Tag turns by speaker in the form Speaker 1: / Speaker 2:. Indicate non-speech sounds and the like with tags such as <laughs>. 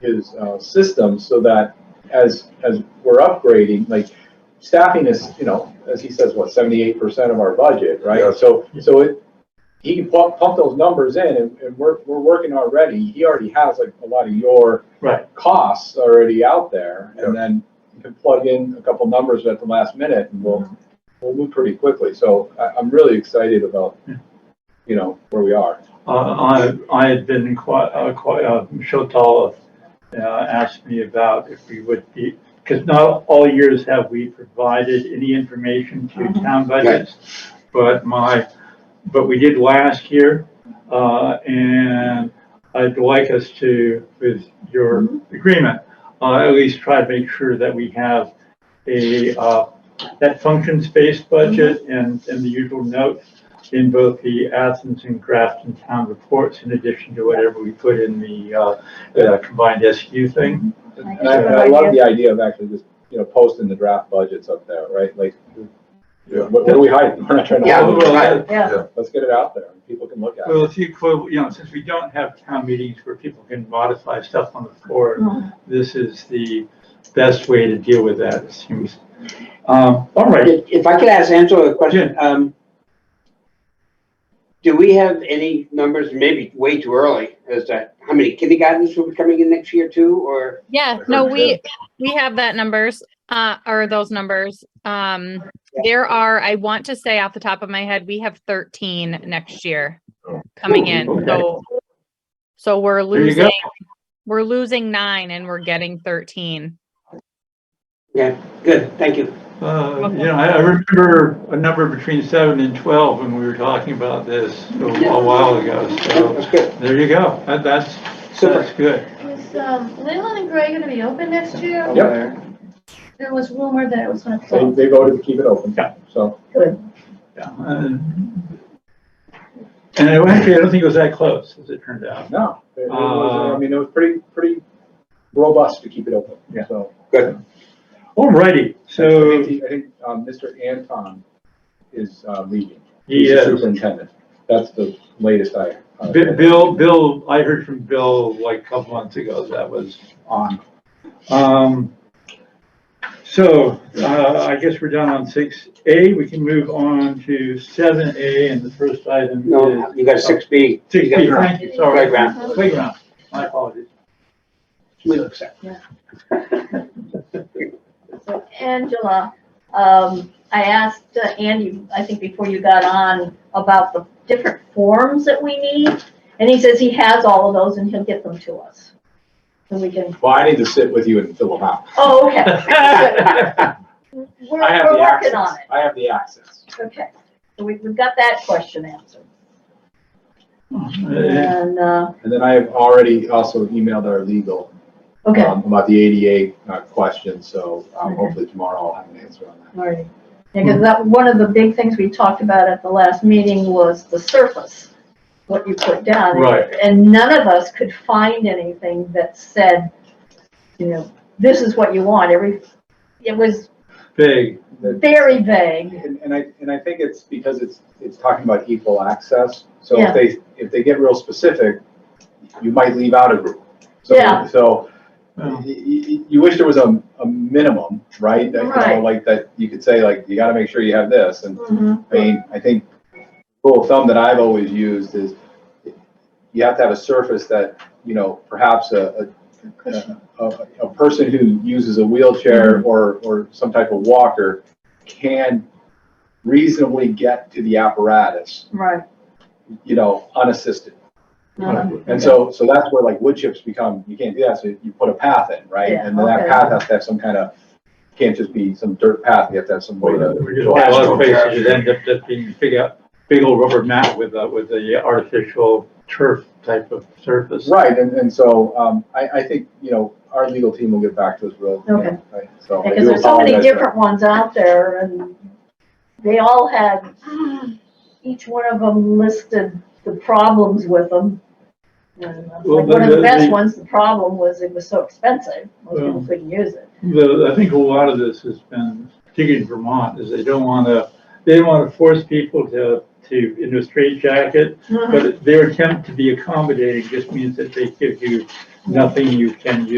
Speaker 1: his uh, system so that as, as we're upgrading, like staffing is, you know, as he says, what, seventy-eight percent of our budget,
Speaker 2: Yeah.
Speaker 1: right? So, so it, he can pump, pump those numbers in and, and we're, we're working already, he already has like a lot of your
Speaker 3: Right.
Speaker 1: costs already out there
Speaker 2: Yeah.
Speaker 1: and then you can plug in a couple numbers at the last minute and we'll, we'll move pretty quickly. So I, I'm really excited about,
Speaker 3: Yeah.
Speaker 1: you know, where we are.
Speaker 3: Uh, I, I had been quite, uh, quite, uh, Michelle Tala, uh, asked me about if we would be, because not all years have we provided any information to town budgets. But my, but we did last year, uh, and I'd like us to, with your agreement, uh, at least try to make sure that we have a, uh, that functions-based budget and, and the usual notes in both the Athens and Grafton town reports, in addition to whatever we put in the, uh, uh, combined SU thing.
Speaker 4: Mm-hmm.
Speaker 1: And I, and I love the idea of actually just, you know, posting the draft budgets up there, right? Like,
Speaker 2: Yeah.
Speaker 1: what, what are we hiding? <laughs> We're not trying to.
Speaker 4: Yeah,
Speaker 1: hide it.
Speaker 4: right.
Speaker 5: Yeah.
Speaker 1: Let's get it out there and people can look at
Speaker 3: Well,
Speaker 1: it.
Speaker 3: it's equal, you know, since we don't have town meetings where people can modify stuff on the floor,
Speaker 4: Mm-hmm.
Speaker 3: this is the best way to deal with that, it seems. Um, all right,
Speaker 4: If if I could ask Angela a question, um, do we have any numbers, maybe way too early, as to how many kindergartens will be coming in next year too, or?
Speaker 6: Yeah,
Speaker 2: I
Speaker 6: no,
Speaker 2: heard
Speaker 6: we, we have that numbers, uh, or those numbers. Um, there are, I want to say off the top of my head, we have thirteen next year
Speaker 2: Oh.
Speaker 6: coming in,
Speaker 3: Okay.
Speaker 6: so. So we're
Speaker 3: there you go.
Speaker 6: losing, we're losing nine and we're getting thirteen.
Speaker 4: Yeah, good, thank you.
Speaker 3: Uh, you know, I, I remember a number between seven and twelve when we were talking about this a a while ago, so
Speaker 4: That's good,
Speaker 3: there you go. That, that's,
Speaker 4: super.
Speaker 3: that's good.
Speaker 5: Is um, Leland and Gray gonna be open next year?
Speaker 1: Yep.
Speaker 5: There was rumor that it was gonna
Speaker 1: They,
Speaker 5: close.
Speaker 1: they voted to keep it open.
Speaker 3: Yeah.
Speaker 1: So,
Speaker 3: Yeah, And and it- actually, I don't think it was that close, as it turned out.
Speaker 1: no, it- it was,
Speaker 3: Uh,
Speaker 1: I mean, it was pretty, pretty robust to keep it open.
Speaker 3: Yeah.
Speaker 1: So.
Speaker 3: Alrighty,
Speaker 1: I
Speaker 3: so,
Speaker 1: think, I think, um, Mr. Anton is, uh, leaving. He's the
Speaker 3: yes,
Speaker 1: Superintendent. That's the latest I. uh,
Speaker 3: Bi- Bill, Bill, I heard from Bill like a couple months ago that was on. Um, so, uh, I guess we're done on six A, we can move on to seven A, and the first item
Speaker 4: No,
Speaker 3: is
Speaker 4: you got six B.
Speaker 3: six B, thank you, sorry.
Speaker 4: Playground.
Speaker 3: Playground, my apologies.
Speaker 5: So Angela, um, I asked uh, Andy, I think before you got on, about the different forms that we need. And he says he has all of those and he'll get them to us. So we can,
Speaker 1: Well, I need to sit with you and fill them
Speaker 3: <laughs>
Speaker 1: out. <laughs>
Speaker 5: oh, okay.
Speaker 4: Good.
Speaker 5: We're,
Speaker 1: I have
Speaker 5: we're
Speaker 1: the
Speaker 5: working
Speaker 1: access.
Speaker 5: on it.
Speaker 1: I have the access.
Speaker 5: Okay. So we, we've got that question answered.
Speaker 3: Uh,
Speaker 5: And, uh,
Speaker 1: And then I have already also emailed our legal um,
Speaker 5: okay,
Speaker 1: about the ADA uh, question, so um,
Speaker 5: Okay.
Speaker 1: hopefully tomorrow I'll have an answer on that.
Speaker 5: all right. Because that, one of the big things we talked about at the last meeting was the surface, what you put down.
Speaker 3: Right.
Speaker 5: And none of us could find anything that said, you know, this is what you want, every, it was
Speaker 3: Big,
Speaker 1: The-
Speaker 5: very vague.
Speaker 1: And, and I, and I think it's because it's, it's talking about equal access, so
Speaker 5: Yeah.
Speaker 1: if they, if they get real specific, you might leave out a group. So-
Speaker 5: Yeah.
Speaker 1: So,
Speaker 3: well,
Speaker 1: you, you wish there was a, a minimum, right? That, you know,
Speaker 5: Right.
Speaker 1: like, that you could say, like, you gotta make sure you have this, and
Speaker 5: Mhm.
Speaker 1: I mean, I think rule of thumb that I've always used is you have to have a surface that, you know, perhaps a, a, a, a person who uses a wheelchair
Speaker 5: Mm-hmm.
Speaker 1: or, or some type of walker can reasonably get to the apparatus,
Speaker 5: Right.
Speaker 1: you know, unassisted.
Speaker 5: Mhm.
Speaker 1: And so, so that's where like wood chips become, you can't do that, so you put a path in, right?
Speaker 5: Yeah,
Speaker 1: And then that
Speaker 5: okay.
Speaker 1: path has to have some kind of, can't just be some dirt path, you have to have some way to.
Speaker 3: we just had a lot of places that end up just being big, up- big old rubber mat with, uh, with the artificial turf type of surface.
Speaker 1: Right, and, and so, um, I, I think, you know, our legal team will get back to us real.
Speaker 5: Okay.
Speaker 1: Right, So. I
Speaker 5: Because
Speaker 1: do
Speaker 5: there's so many
Speaker 1: apologize for
Speaker 5: different ones out there and they all had, each one of them listed the problems with them. And uh,
Speaker 3: Well,
Speaker 5: like one of the
Speaker 3: the-
Speaker 5: best
Speaker 3: the-
Speaker 5: ones, the problem was it was so expensive, most people
Speaker 3: Well.
Speaker 5: couldn't use it.
Speaker 3: The, I think a lot of this has been, particularly in Vermont, is they don't want to, they don't want to force people to, to, into a straitjacket,
Speaker 5: <laughs>
Speaker 3: but their attempt to be accommodating just means that they give you nothing you can use.